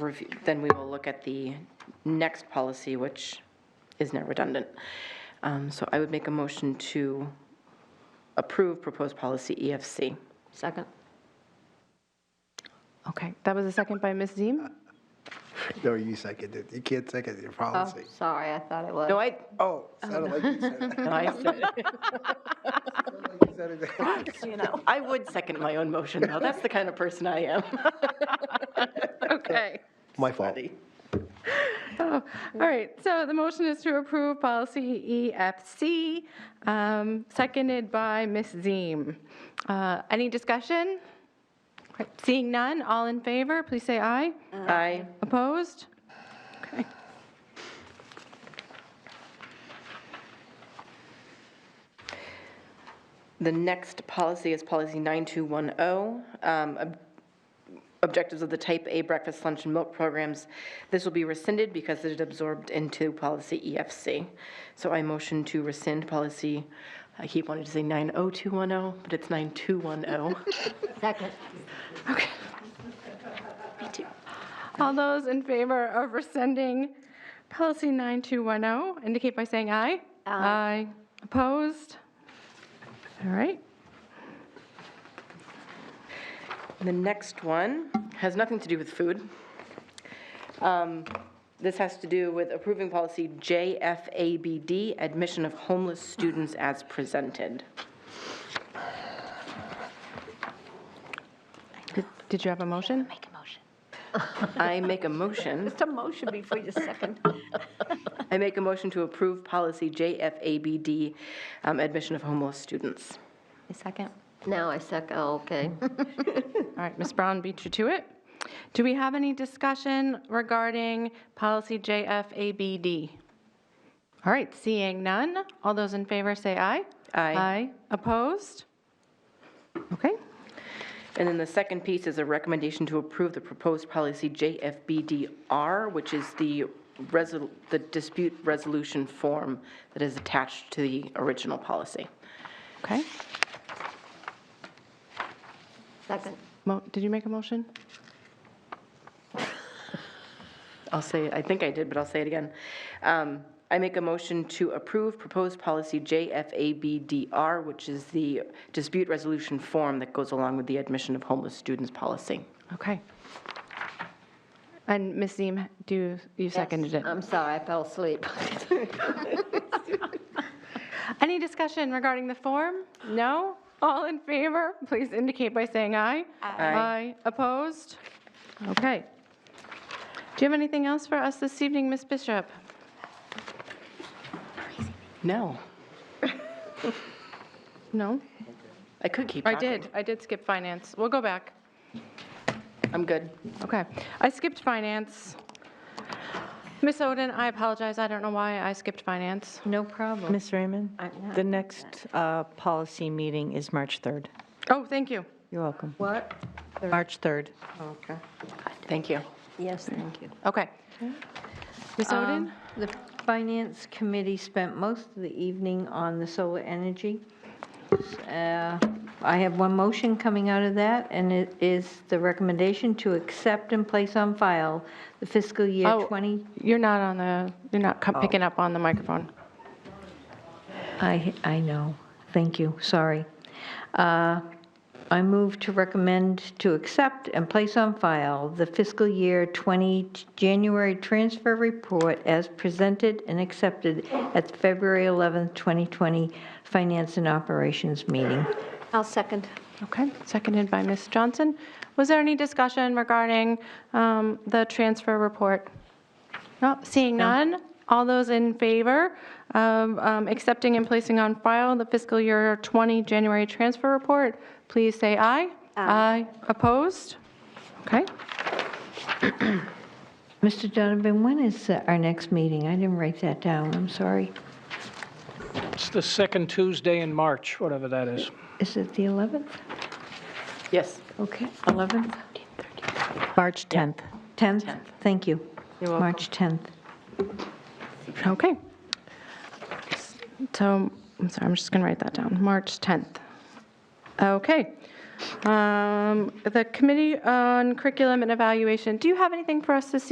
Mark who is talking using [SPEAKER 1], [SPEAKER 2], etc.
[SPEAKER 1] review, then we will look at the next policy, which is now redundant. Um, So I would make a motion to approve proposed policy E EFC.
[SPEAKER 2] Second.
[SPEAKER 3] Okay, that was a second by Ms. Ziem.
[SPEAKER 4] No, you second it. You can't second your policy.
[SPEAKER 2] Oh, Sorry, I thought it was.
[SPEAKER 1] No, I,
[SPEAKER 4] Oh, sounded like you said it.
[SPEAKER 1] no, I said it.
[SPEAKER 4] Sounded like you said it.
[SPEAKER 1] I would second my own motion, though. That's the kind of person I am.
[SPEAKER 3] Okay.
[SPEAKER 4] My fault.
[SPEAKER 3] Oh, all right, so the motion is to approve policy EFC, um, seconded by Ms. Ziem. Uh, Any discussion? Okay, Seeing none, all in favor, please say aye.
[SPEAKER 1] Aye.
[SPEAKER 3] Opposed? Okay.
[SPEAKER 1] The next policy is policy 9210, um, ob- objectives of the type A breakfast, lunch, and milk programs. This will be rescinded because it is absorbed into policy EFC. So I motion to rescind policy, I keep wanting to say 90210, but it's 9210.
[SPEAKER 2] Second.
[SPEAKER 3] Okay. All those in favor of rescinding policy 9210 oh, indicate by saying aye. Aye. Opposed? All right.
[SPEAKER 1] The next one has nothing to do with food. Um, This has to do with approving policy JFABD, admission of homeless students as presented.
[SPEAKER 3] Did- Did you have a motion?
[SPEAKER 2] Make a motion.
[SPEAKER 1] I make a motion,
[SPEAKER 2] Just a motion before you second.
[SPEAKER 1] I make a motion to approve policy JFABD, um, admission of homeless students.
[SPEAKER 3] second.
[SPEAKER 2] Now I second, oh, okay.
[SPEAKER 3] All right, Ms. Brown beat you to it. Do we have any discussion regarding policy JFABD? All right, seeing none, all those in favor say aye.
[SPEAKER 1] Aye.
[SPEAKER 3] Aye. Opposed? Okay.
[SPEAKER 1] And then the second piece is a recommendation to approve the proposed policy JFBDR, which is the resol, the dispute resolution form that is attached to the original policy.
[SPEAKER 3] Okay.
[SPEAKER 2] Second.
[SPEAKER 3] Mo- Did you make a motion?
[SPEAKER 1] I'll say, I think I did, but I'll say it again. Um, I make a motion to approve proposed policy JFABDR, which is the dispute resolution form that goes along with the admission of homeless students policy.
[SPEAKER 3] Okay. And Ms. Ziem, do, you- you seconded it?
[SPEAKER 2] I'm sorry, I fell asleep.
[SPEAKER 3] Any discussion regarding the form? No? All in favor, please indicate by saying aye. Aye. Opposed? Okay. Do you have anything else for us this evening, Ms. Bishop?
[SPEAKER 1] No,
[SPEAKER 3] No?
[SPEAKER 1] I could keep
[SPEAKER 3] I
[SPEAKER 1] talking.
[SPEAKER 3] did, I did skip finance. We'll go back.
[SPEAKER 1] I'm good.
[SPEAKER 3] Okay. I skipped finance. Ms. Oden, I apologize, I don't know why I skipped finance.
[SPEAKER 2] No problem.
[SPEAKER 5] Ms. Raymond, the next uh, policy meeting is March 3rd.
[SPEAKER 3] Oh, thank you.
[SPEAKER 5] You're welcome.
[SPEAKER 2] What?
[SPEAKER 5] March 3rd.
[SPEAKER 2] Okay.
[SPEAKER 1] Thank you.
[SPEAKER 2] Yes, thank you.
[SPEAKER 3] Okay. Ms. Oden?
[SPEAKER 6] Um, The Finance Committee spent most of the evening on the solar energy. Uh, I have one motion coming out of that, and it is the recommendation to accept and place on file the fiscal year
[SPEAKER 3] Oh.
[SPEAKER 6] 20.
[SPEAKER 3] You're Oh. not on the, you're not co- picking up on the microphone.
[SPEAKER 6] I, I know, thank you, sorry. Uh, I move to recommend to accept and place on file the fiscal year 20 January transfer report as presented and accepted at the February 11th, 2020 Finance and Operations meeting.
[SPEAKER 2] I'll second.
[SPEAKER 3] Okay, seconded by Ms. Johnson. Was there any discussion regarding um, the transfer report? No, seeing none. All those in favor of um, accepting and placing on file the fiscal year 20 January transfer report, please say aye. Aye. Opposed? Okay.
[SPEAKER 6] Mr. Donovan, when is uh, our next meeting? I didn't write that down, I'm sorry.
[SPEAKER 7] It's the second Tuesday in March, whatever that is.
[SPEAKER 6] Is it the 11th?
[SPEAKER 1] Yes.
[SPEAKER 6] Okay, 11th?
[SPEAKER 5] March 10th.
[SPEAKER 6] 10th? Thank you. March 10th.
[SPEAKER 3] Okay. So, I'm sorry, I'm just going to write that down, March 10th. Okay. Um, The Committee on Curriculum and Evaluation, do you have anything for us this evening?